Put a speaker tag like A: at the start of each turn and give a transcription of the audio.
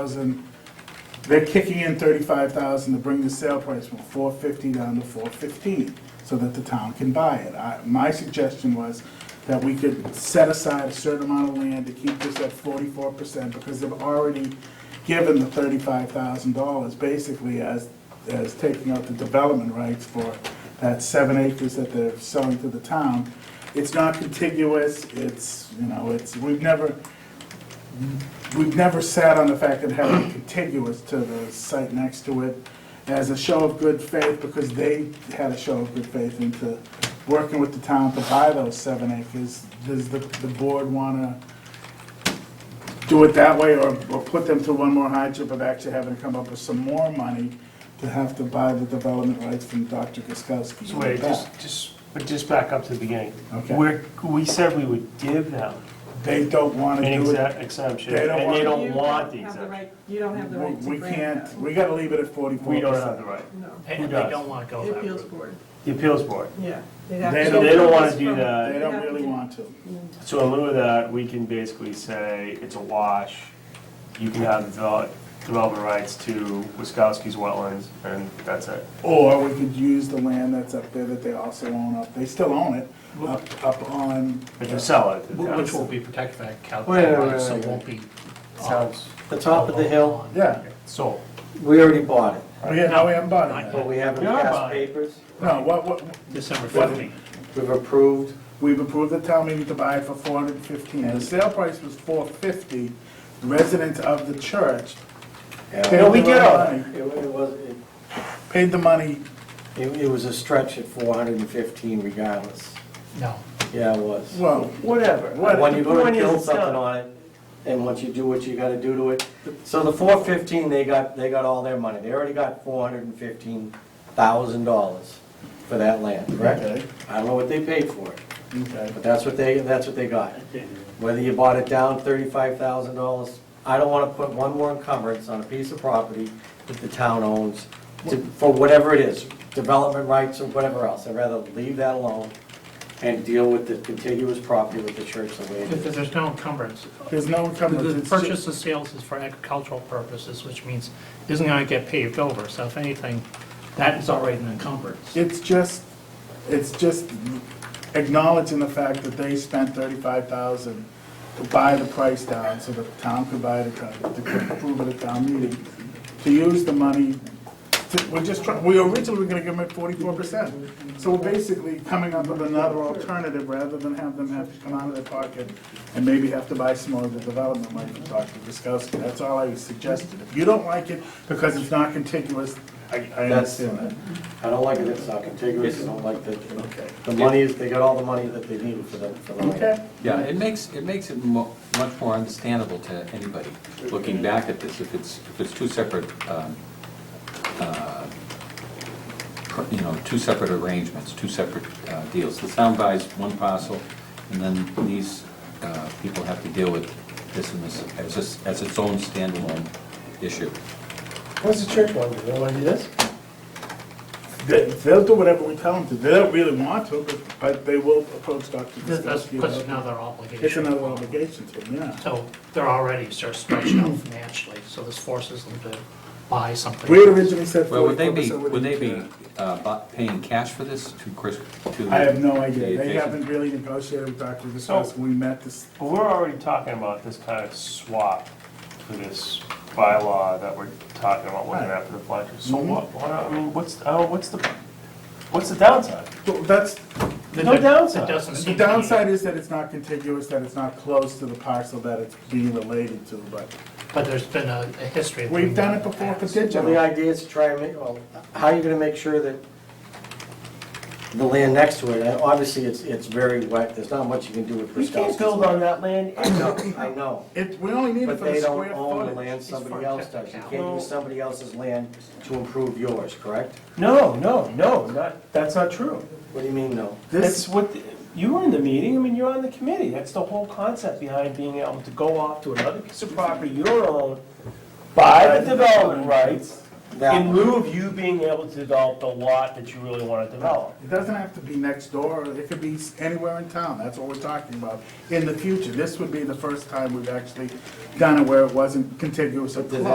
A: thousand, they're kicking in thirty-five thousand to bring the sale price from four fifty down to four fifteen, so that the town can buy it. I, my suggestion was that we could set aside a certain amount of land to keep this at forty-four percent, because they've already given the thirty-five thousand dollars basically as, as taking out the development rights for that seven acres that they're selling to the town. It's not contiguous, it's, you know, it's, we've never, we've never sat on the fact that having contiguous to the site next to it as a show of good faith, because they had a show of good faith into working with the town to buy those seven acres. Does the, the board wanna do it that way, or, or put them through one more hardship of actually having to come up with some more money to have to buy the development rights from Dr. Guskowski?
B: So wait, just, just, but just back up to the beginning.
A: Okay.
B: We're, we said we would give them
A: They don't wanna
B: an
A: do it.
B: exa- exemption,
A: They don't
B: and
A: want-
B: they don't
C: You
B: want the
C: have
B: exemption.
C: right- You don't have the right to
A: We
C: grant
A: we can't,
C: that.
A: we gotta leave it at forty-four percent.
B: We don't have the right.
C: No,
D: And
B: Who
D: they
B: does?
D: don't want to go
C: the
D: that
C: appeals
D: route.
C: board,
B: The appeals board.
C: yeah.
A: They
B: So they don't want to do
A: They
B: that.
A: don't really want to.
B: So in lieu of that, we can basically say it's a wash. You can have the develop- development rights to Wiskowski's wetlands, and that's it.
A: Or we could use the land that's up there that they also own up, they still own it, up, up on,
B: But you sell it. to the
D: Wh- Which will
B: town.
D: be protected by Cal,
E: Wait, wait, wait,
D: so it
E: wait.
D: won't be. uh,
E: Sounds- The top of the hill,
A: yeah.
B: Sold.
E: we already bought it,
A: Oh, yeah, now we haven't bought it.
E: but we haven't
B: We are
E: passed
B: buying it.
E: papers.
A: No, what, what,
D: December
A: What?
D: 15th.
E: We've approved,
A: we've approved the town meeting to buy it for four hundred and fifteen, the sale price was four fifty, residents of the church.
E: yeah,
B: Yeah, we
A: paid
B: get
A: their own
B: all that.
A: money-
E: it wa- it was, it-
A: Paid the money,
E: it, it was a stretch at four hundred and fifteen regardless,
D: No.
E: yeah, it was.
A: well,
B: Whatever.
E: When you go to
B: Point is,
E: build
B: it's
E: something
B: done.
E: on it, and once you do what you gotta do to it, so the four fifteen, they got, they got all their money, they already got four hundred and fifteen thousand dollars for that land, correct?
A: Okay.
E: I don't know what they paid for it.
A: okay,
E: But that's what they, that's what they got. Whether you bought it down thirty-five thousand dollars, I don't wanna put one more encumbrance on a piece of property that the town owns to- for whatever it is, development rights or whatever else. I'd rather leave that alone and deal with the contiguous property with the church the way it
D: If
E: is.
D: There's no encumbrance.
A: there's no encumbrance.
D: The
A: it's ju-
D: purchase of sales is for agricultural purposes, which means it isn't going to get paved over, so if anything, that is already an encumbrance.
A: It's just, it's just acknowledging the fact that they spent thirty-five thousand to buy the price down so that the town could buy it, to approve it at town meeting, to use the money, to- we're just trying, we originally were gonna give them forty-four percent. So we're basically coming up with another alternative rather than have them have to come out of their pocket and maybe have to buy some more of the development money from Dr. Guskowski. That's all I suggested. If you don't like it because it's not contiguous, I, I
E: That's-
A: understand that.
E: I don't like it, it's not contiguous, I don't like the,
A: Okay.
E: the money is, they got all the money that they needed for the, for the land.
A: Okay.
F: Yeah, it makes, it makes it mo- much more understandable to anybody looking back at this, if it's, if it's two separate, um, uh, pr- you know, two separate arrangements, two separate uh, deals. The town buys one parcel, and then these uh, people have to deal with this and this as, its- as its own standalone issue.
E: What's the church want, they wanna do this?
A: They- They'll do whatever we tell them to. They don't really want to, but, but they will approach Dr.
D: That- That's
A: Guskowski. about
D: that's
A: it.
D: another
A: It's
D: obligation.
A: another obligation to them, yeah.
D: So they're already sort of stretched out financially, so this forces them to buy something.
A: We had originally said
F: Well, would they
A: forty-four
F: be,
A: percent.
F: would they be uh, bu- paying cash for this to Chris? to
A: I have no
F: the
A: idea. They
F: adjacent-
A: haven't really negotiated with Dr. Guskowski.
E: Oh.
A: We met this,
B: But we're already talking about this kind of swap for this bylaw that we're talking about looking at for the budget. So
A: Mhm.
B: what, why not- I mean, what's, I don't- what's the, what's the downside?
A: Well, that's,
D: That-
B: No
D: that-
B: downside.
D: That doesn't seem to
A: the
D: be-
A: downside is that it's not contiguous, that it's not close to the parcel that it's being related to, but
D: But there's been a a history. of
A: we've
D: doing
A: done it
D: that in the
A: before for
D: past.
E: So the
A: digital.
E: idea is to try and make, well, how are you gonna make sure that the land next to it, and obviously, it's, it's very wet, there's not much you can do with
B: We
E: Bristowski's.
B: can't build on that land.
E: I know, I know,
A: It, we only need it
E: but
A: for the
E: they don't
A: square
E: own the
A: footage.
E: land, somebody
D: for
E: else does, you can't
B: technicality.
E: use somebody else's land to improve yours, correct?
B: No, no, no, not, that's not true.
E: What do you mean, no?
B: That's what, the- you were in the meeting, I mean, you're on the committee. That's the whole concept behind being able to go off to another piece of property you don't own, buy the development rights, in
E: Now,
B: lieu of you being able to develop the lot that you really want to develop.
A: It doesn't have to be next door, it could be s- anywhere in town, that's what we're talking about. In the future, this would be the first time we've actually done it where it wasn't contiguous or
E: But did
A: close.